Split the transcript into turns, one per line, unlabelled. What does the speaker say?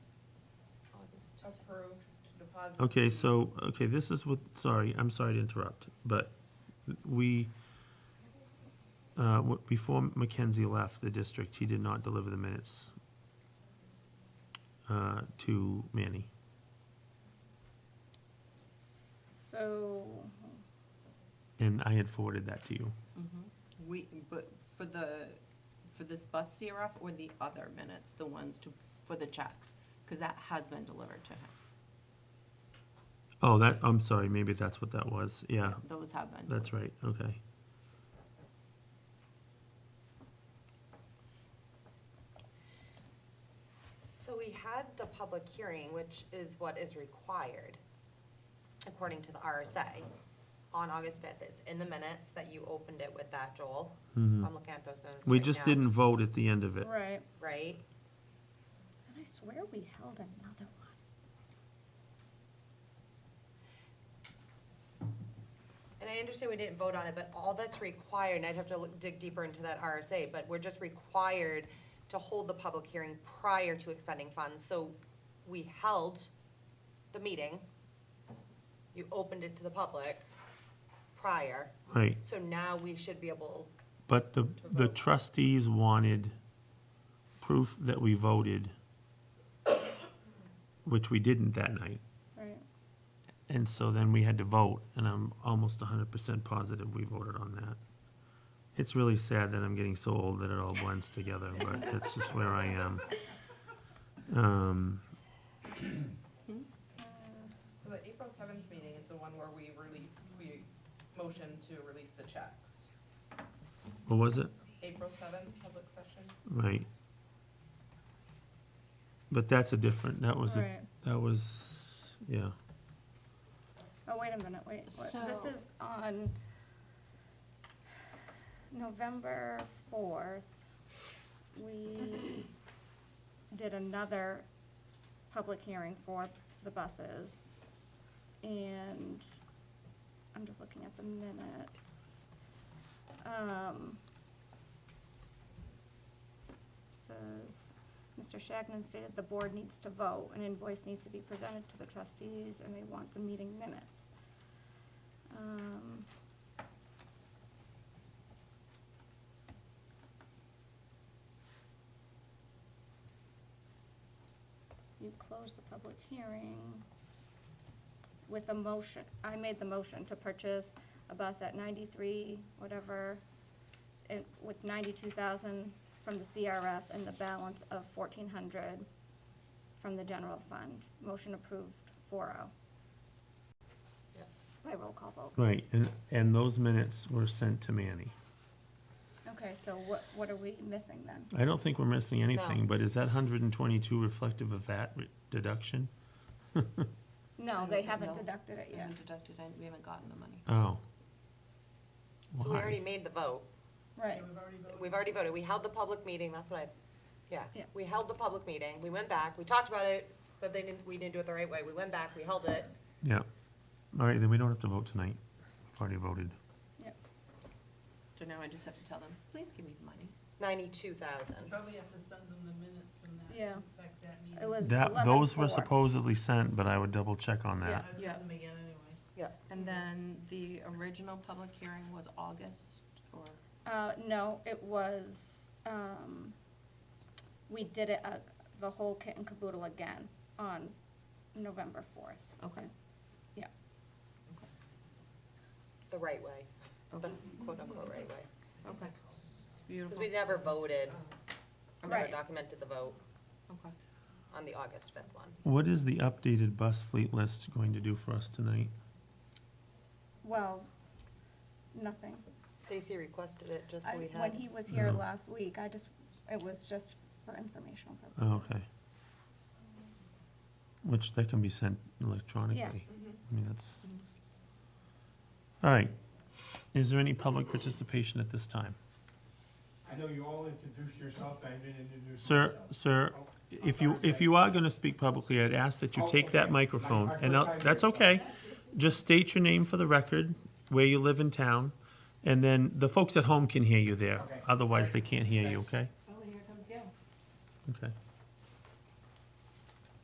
approved deposit.
Okay, so, okay, this is what, sorry, I'm sorry to interrupt, but we, uh, what- before Mackenzie left the district, he did not deliver the minutes uh, to Manny.
So,
And I had forwarded that to you.
mm-hmm.
We, but for the, for this bus CRF or the other minutes, the ones to, for the checks? Because that has been delivered to him.
Oh, that, I'm sorry, maybe that's what that was. Yeah,
Those have been.
that's right, okay.
So we had the public hearing, which is what is required, according to the RSA, on August fifth. It's in the minutes that you opened it with that, Joel.
Mm-hmm.
I'm looking at those minutes
We
right
just
now,
didn't vote at the end of it.
right.
Right?
And I swear we held another one.
And I understand we didn't vote on it, but all that's required, and I'd have to look- dig deeper into that RSA, but we're just required to hold the public hearing prior to expending funds, so we held the meeting. You opened it to the public prior,
Right,
so now we should be able
but the, the trustees wanted proof that we voted, which we didn't that night.
Right.
And so then we had to vote, and I'm almost hundred percent positive we voted on that. It's really sad that I'm getting so old that it all blends together, but that's just where I am. Um,
So the April seventh meeting is the one where we released, we motioned to release the checks.
what was it?
April seventh, public session.
Right. But that's a different, that was, a-
Right.
that was, yeah.
Oh, wait a minute, wait, what- this
So-
is on November fourth. We did another public hearing for the buses. And I'm just looking at the minutes. Um, Says, Mr. Shagnon stated the board needs to vote, an invoice needs to be presented to the trustees, and they want the meeting minutes. Um, You closed the public hearing with a motion, I made the motion to purchase a bus at ninety-three, whatever, and with ninety-two thousand from the CRF and the balance of fourteen hundred from the general fund. Motion approved, four oh.
Yep.
By roll call vote.
Right, and, and those minutes were sent to Manny.
Okay, so what, what are we missing then?
I don't think we're missing anything,
No.
but is that hundred and twenty-two reflective of that re- deduction?
No,
don't
they
think-
haven't
no.
deducted it
We
yet.
haven't deducted it, we haven't gotten the money.
Oh.
So we
Why?
already made the vote.
Right,
We've already voted. We held the public meeting, that's what I, yeah.
Yeah.
We held the public meeting. We went back, we talked about it, said they didn't, we didn't do it the right way. We went back, we held it.
Yeah. All right, then we don't have to vote tonight. We've already voted.
yep.
So now I just have to tell them, please give me the money.
Ninety-two thousand.
Probably have to send them the minutes from that.
Yeah.
Sec that
It
meeting.
was
That, those were
11-4.
supposedly sent, but I would double check on
I
that.
would
Yeah.
send them again anyway.
And then the original public hearing was August or,
Uh, no, it was, um, we did it, uh, the whole kit and caboodle again on November fourth.
okay.
Yeah.
The right way, the
Okay,
quote-unquote right way.
okay.
Because
Beautiful,
we never voted, we never
Right.
documented the vote
okay.
on the August fifth one.
What is the updated bus fleet list going to do for us tonight?
Well, nothing.
Stacy requested it just
I-
so we
When
had,
he was here
No.
last week, I just, it was just for informational purposes.
Oh, okay. Which, that can be sent electronically. I mean, that's. All right. Is there any public participation at this time?
I know you all introduced yourself, I didn't introduce
Sir,
myself.
sir, if you, if you are gonna speak publicly, I'd ask that you take that microphone, and I'll- that's okay. Just state your name for the record, where you live in town, and then the folks at home can hear you there. Otherwise, they can't hear you, okay?
Oh, and here comes Gail.
Okay.